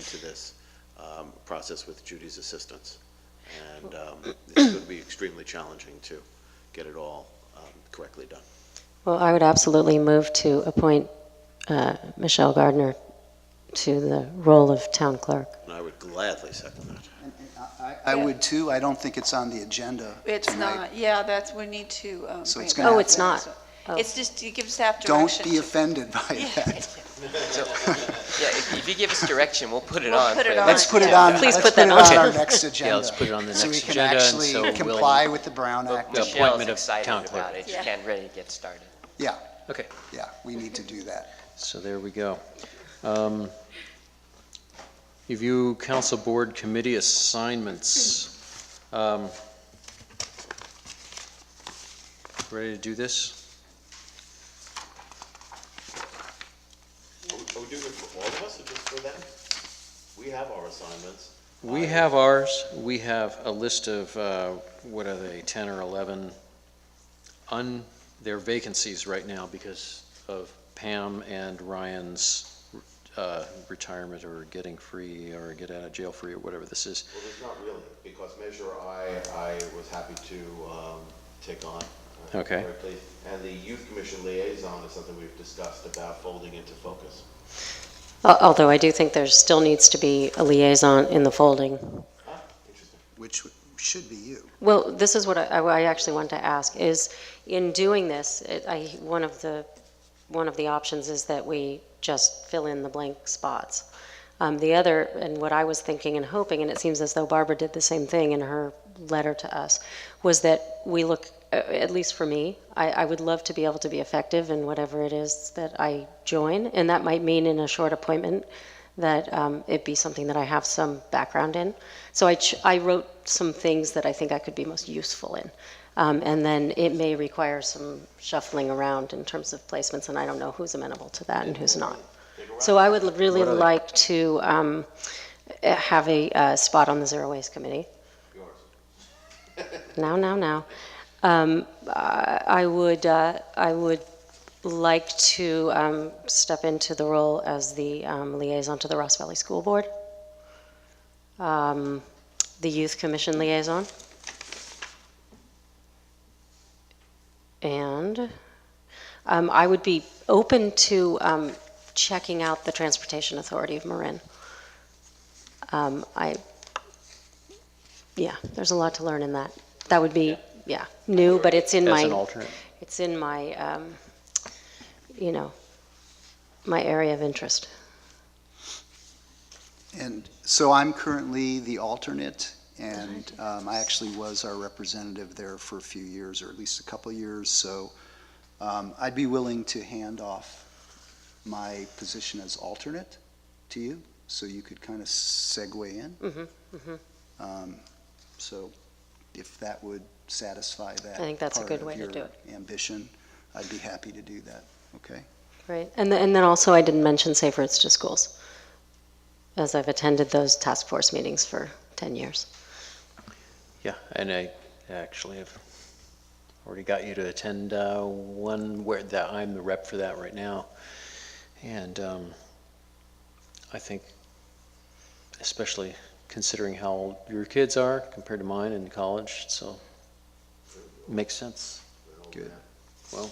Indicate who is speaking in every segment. Speaker 1: to this um, process with Judy's assistance. And um, it's going to be extremely challenging to get it all um, correctly done.
Speaker 2: Well, I would absolutely move to appoint uh, Michelle Gardner to the role of town clerk.
Speaker 1: And I would gladly second that.
Speaker 3: And- and I- I I would too. I don't think it's on the agenda.
Speaker 4: It's
Speaker 3: tonight.
Speaker 4: not, yeah, that's, we need to. um,
Speaker 3: So it's
Speaker 4: bring
Speaker 3: gonna Oh,
Speaker 4: it back.
Speaker 2: it's not. Oh.
Speaker 4: It's just, you give staff
Speaker 3: Don't
Speaker 4: direction.
Speaker 3: be
Speaker 4: to-
Speaker 3: offended by
Speaker 4: Yeah.
Speaker 3: that.
Speaker 5: Yeah, if if you give us direction, we'll put it
Speaker 4: We'll
Speaker 5: on.
Speaker 4: put it
Speaker 5: for-
Speaker 4: on.
Speaker 3: Let's put it
Speaker 4: Yeah.
Speaker 3: on,
Speaker 2: Please
Speaker 3: let's
Speaker 2: put
Speaker 3: put
Speaker 2: that
Speaker 3: it
Speaker 2: on.
Speaker 3: on our next agenda.
Speaker 6: Yeah, let's put it on the next agenda, and
Speaker 3: So we
Speaker 6: so
Speaker 3: can
Speaker 6: we'll-
Speaker 3: actually comply with the Brown Act.
Speaker 5: Michelle's
Speaker 6: appointment of
Speaker 5: excited
Speaker 6: town
Speaker 5: about
Speaker 6: clerk.
Speaker 5: it. She
Speaker 4: Yeah.
Speaker 5: can't ready to get started.
Speaker 3: Yeah,
Speaker 6: Okay,
Speaker 3: yeah, we need to do that.
Speaker 6: so there we go. Um, Review council board committee assignments. Um, Ready to do this?
Speaker 1: Are we doing it for all of us or just for them? We have our assignments.
Speaker 6: We have ours, we have a list of, uh, what are they, 10 or 11, un, they're vacancies right now because of Pam and Ryan's uh, retirement or getting free or get out of jail free or whatever this is.
Speaker 1: Well, there's not really, because Measure I, I was happy to um, take on. uh,
Speaker 6: Okay.
Speaker 1: directly. And the Youth Commission Liaison is something we've discussed about folding into focus.
Speaker 2: Al- Although I do think there still needs to be a liaison in the folding.
Speaker 1: Ah, interesting.
Speaker 3: Which w- should be you.
Speaker 2: Well, this is what I, I actually wanted to ask, is in doing this, it- I, one of the, one of the options is that we just fill in the blank spots. Um, The other, and what I was thinking and hoping, and it seems as though Barbara did the same thing in her letter to us, was that we look, uh, at least for me, I, I would love to be able to be effective in whatever it is that I join, and that might mean in a short appointment, that um, it be something that I have some background in. So I, ch- I wrote some things that I think I could be most useful in. Um, and then it may require some shuffling around in terms of placements, and I don't know who's amenable to that and who's not. So I would l- really
Speaker 6: What are they?
Speaker 2: like to um, eh, have a uh, spot on the Zero Waste Committee.
Speaker 1: Yours.
Speaker 2: Now, now, now. Um, I, I would, uh, I would like to um, step into the role as the um, liaison to the Ross Valley School Board, um, the Youth Commission liaison, and um, I would be open to um, checking out the Transportation Authority of Marin. Um, I, yeah, there's a lot to learn in that. That would be, yeah, new, but it's in my.
Speaker 6: As an alternate?
Speaker 2: It's in my, um, you know, my area of interest.
Speaker 3: And so I'm currently the alternate, and um, I actually was our representative there for a few years, or at least a couple of years, so um, I'd be willing to hand off my position as alternate to you, so you could kind of segue in.
Speaker 2: Mhm,
Speaker 3: Um, So if that would satisfy that.
Speaker 2: I think that's a
Speaker 3: part
Speaker 2: good
Speaker 3: of
Speaker 2: way to
Speaker 3: your
Speaker 2: do it.
Speaker 3: Ambition, I'd be happy to do that, okay?
Speaker 2: Right. And, th- and then also, I didn't mention Safe Routes to Schools, as I've attended those task force meetings for 10 years.
Speaker 6: Yeah, and I actually have already got you to attend uh, one where that I'm the rep for that right now. And um, I think, especially considering how old your kids are compared to mine in college, so makes sense.
Speaker 3: Good.
Speaker 6: Well,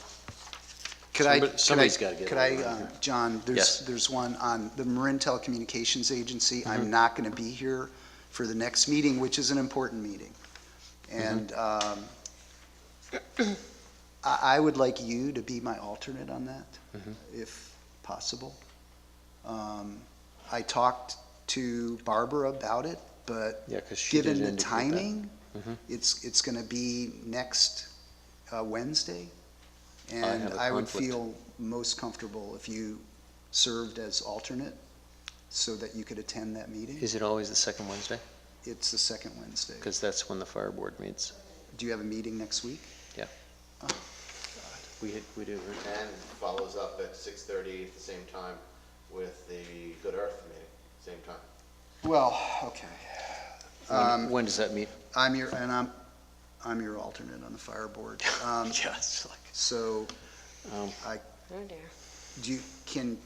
Speaker 3: Could I,
Speaker 6: Somebody-
Speaker 3: could I-
Speaker 6: somebody's gotta get
Speaker 3: could
Speaker 6: it
Speaker 3: I,
Speaker 6: right
Speaker 3: uh,
Speaker 6: here.
Speaker 3: John,
Speaker 6: Yes.
Speaker 3: there's, there's one on the Marin Telecommunications Agency. I'm
Speaker 6: Mm-hmm.
Speaker 3: not going to be here for the next meeting, which is an important meeting.
Speaker 6: Mm-hmm.
Speaker 3: And um, I, I would like you to be my alternate on that,
Speaker 6: Mhm.
Speaker 3: if possible. Um, I talked to Barbara about it, but
Speaker 6: yeah, because she did
Speaker 3: given the
Speaker 6: indicate that.
Speaker 3: timing,
Speaker 6: Mhm.
Speaker 3: it's, it's going to be next uh, Wednesday.
Speaker 6: have
Speaker 3: And
Speaker 6: a
Speaker 3: I would
Speaker 6: conflict.
Speaker 3: feel most comfortable if you served as alternate so that you could attend that meeting.
Speaker 6: Is it always the second Wednesday?
Speaker 3: It's the second Wednesday.
Speaker 6: Because that's when the fire board meets.
Speaker 3: Do you have a meeting next week?
Speaker 6: We, we do.
Speaker 1: And follows up at 6:30 at the same time with the Good Earth meeting, same time.
Speaker 3: Well, okay.
Speaker 6: When,
Speaker 3: Um,
Speaker 6: when does that meet?
Speaker 3: I'm your, and I'm, I'm your alternate on the fire board. Um,
Speaker 6: Yes.
Speaker 3: So
Speaker 2: Oh, dear.
Speaker 3: do you, can,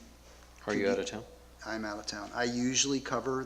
Speaker 6: Are
Speaker 3: Could
Speaker 6: you
Speaker 3: be-
Speaker 6: out of town?
Speaker 3: I'm out of town. I usually cover